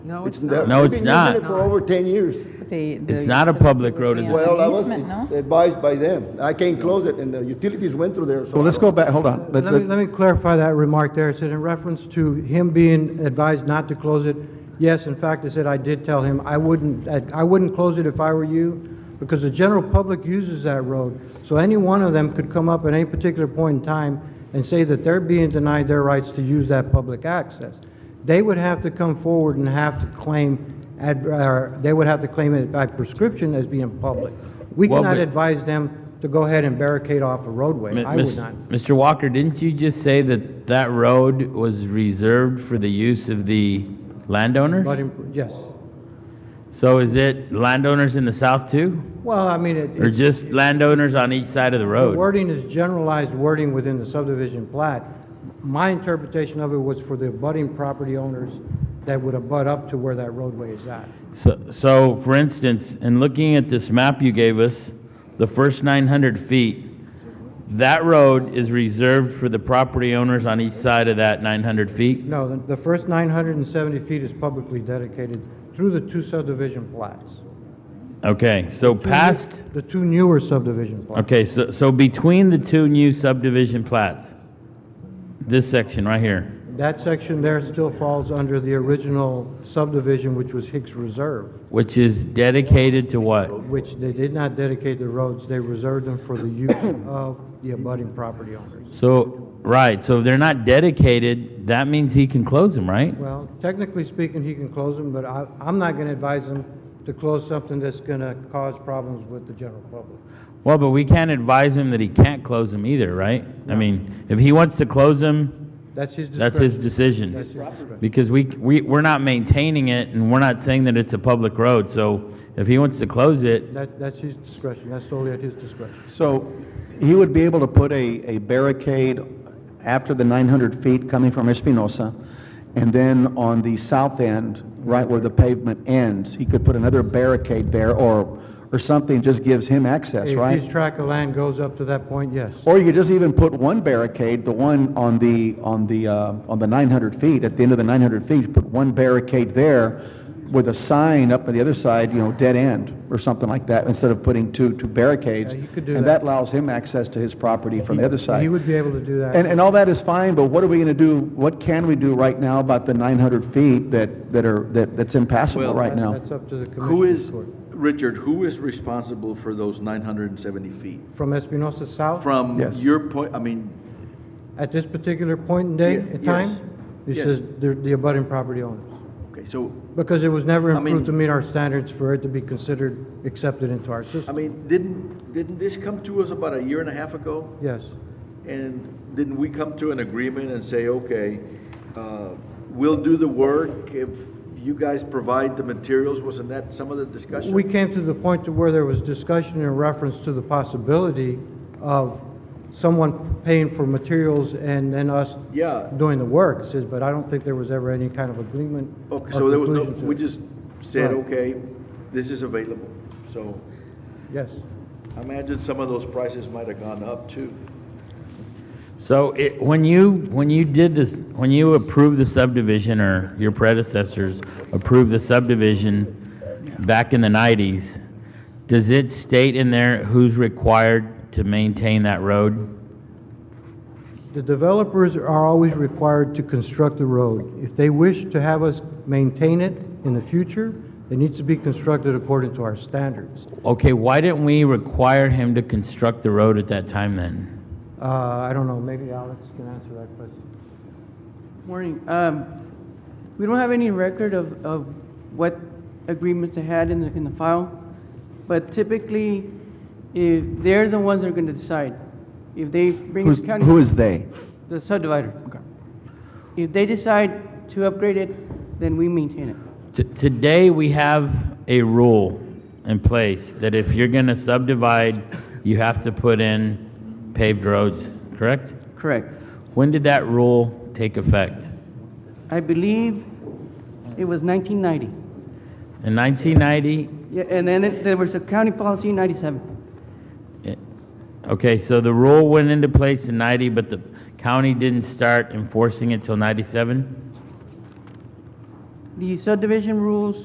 No, it's there- not. we've it's been using not. it For over ten years. The- It's the- not a public road, is it? Well, I was Easement, no? advised by them. I can't close it, and the utilities went through there, so. Well, let's go back, hold on. Let- Let me, let- let me clarify that remark there. It said in reference to him being advised not to close it, yes, in fact, it said I did tell him, I wouldn't, I I wouldn't close it if I were you, because the general public uses that road. So any one of them could come up at any particular point in time and say that they're being denied their rights to use that public access. They would have to come forward and have to claim, ad- or they would have to claim it by prescription as being public. We Well, cannot but- advise them to go ahead and barricade off a roadway. Mi- I would mis- not. Mr. Walker, didn't you just say that that road was reserved for the use of the But, landowners? in- yes. So is it landowners in the south too? Well, I mean, it- Or it's- just landowners on each side of the the road? wording is generalized wording within the subdivision plat. My interpretation of it was for the abutting property owners that would abut up to where that roadway is at. So, so for instance, in looking at this map you gave us, the first 900 feet, that road is reserved for the property owners on each side of that 900 feet? No, the- the first 970 feet is publicly dedicated through the two subdivision plats. Okay, so past, The two newer subdivision plats. okay, so, so between the two new subdivision plats, this section right here, That section there still falls under the original subdivision, which was Hicks Reserve, which is dedicated to what? which they did not dedicate the roads, they reserved them for the use of the abutting property owners. So, right, so if they're not dedicated, that means he can close them, right? Well, technically speaking, he can close them, but I, I'm not gonna advise him to close something that's gonna cause problems with the general public. Well, but we can't advise him that he can't close them either, right? I mean, if he wants to close them, That's his discretion. that's his That's decision. his discretion. Because we, we, we're not maintaining it, and we're not saying that it's a public road, so if he wants to close it, That, that's his discretion, that's solely at his discretion. So he would be able to put a, a barricade after the 900 feet coming from Espinosa, and then on the south end, right where the pavement ends, he could put another barricade there or, or something just gives him access, If his right? tract of land goes up to that point, yes. Or you could just even put one barricade, the one on the, on the, uh, on the 900 feet, at the end of the 900 feet, put one barricade there with a sign up on the other side, you know, dead end or something like that, instead of putting two, two barricades. Yeah, you could do And that. that allows him access to his property from the other side. He would be able to do And, that. and all that is fine, but what are we going to do, what can we do right now about the 900 feet that, that are, that that's impassable Well- right now? That's up to the Who commissioner's is, court. Richard, who is responsible for those 970 feet? From Espinosa South? From Yes. your point, I mean, At this particular point in day, Ye- in yes. time? He Yes. says the, the abutting property owners. okay, so, Because it was never I mean- improved to meet our standards for it to be considered accepted into our I system. mean, didn't, didn't this come to us about a year and a half ago? Yes. And didn't we come to an agreement and say, okay, uh, we'll do the work if you guys provide the materials? Wasn't that some of the discussion? We came to the point to where there was discussion in reference to the possibility of someone paying for materials and then us Yeah. doing the work, says, but I don't think there was ever any kind of agreement. Okay, or so there was no, conclusion to we it. just said, Right. okay, this is available. So Yes. I imagine some of those prices might have gone up too. so it, when you, when you did this, when you approved the subdivision, or your predecessors approved the subdivision back in the nineties, does it state in there who's required to maintain that road? The developers are always required to construct the road. If they wish to have us maintain it in the future, it needs to be constructed according to our standards. Okay, why didn't we require him to construct the road at that time then? Uh, I don't know, maybe Alex can answer that question. Morning. Um, We don't have any record of, of what agreements they had in the, in the file, but typically, if, they're the ones that are gonna decide. If they bring Who's, the county. who is they? The subdivider. Okay. If they decide to upgrade it, then we maintain it. T- Today, we have a rule in place that if you're going to subdivide, you have to put in paved roads, correct? Correct. When did that rule take effect? I believe it was 1990. In 1990? Yeah, and then it- there was a county policy in 97. Eh, Okay, so the rule went into place in 90, but the county didn't start enforcing it till 97? the subdivision rules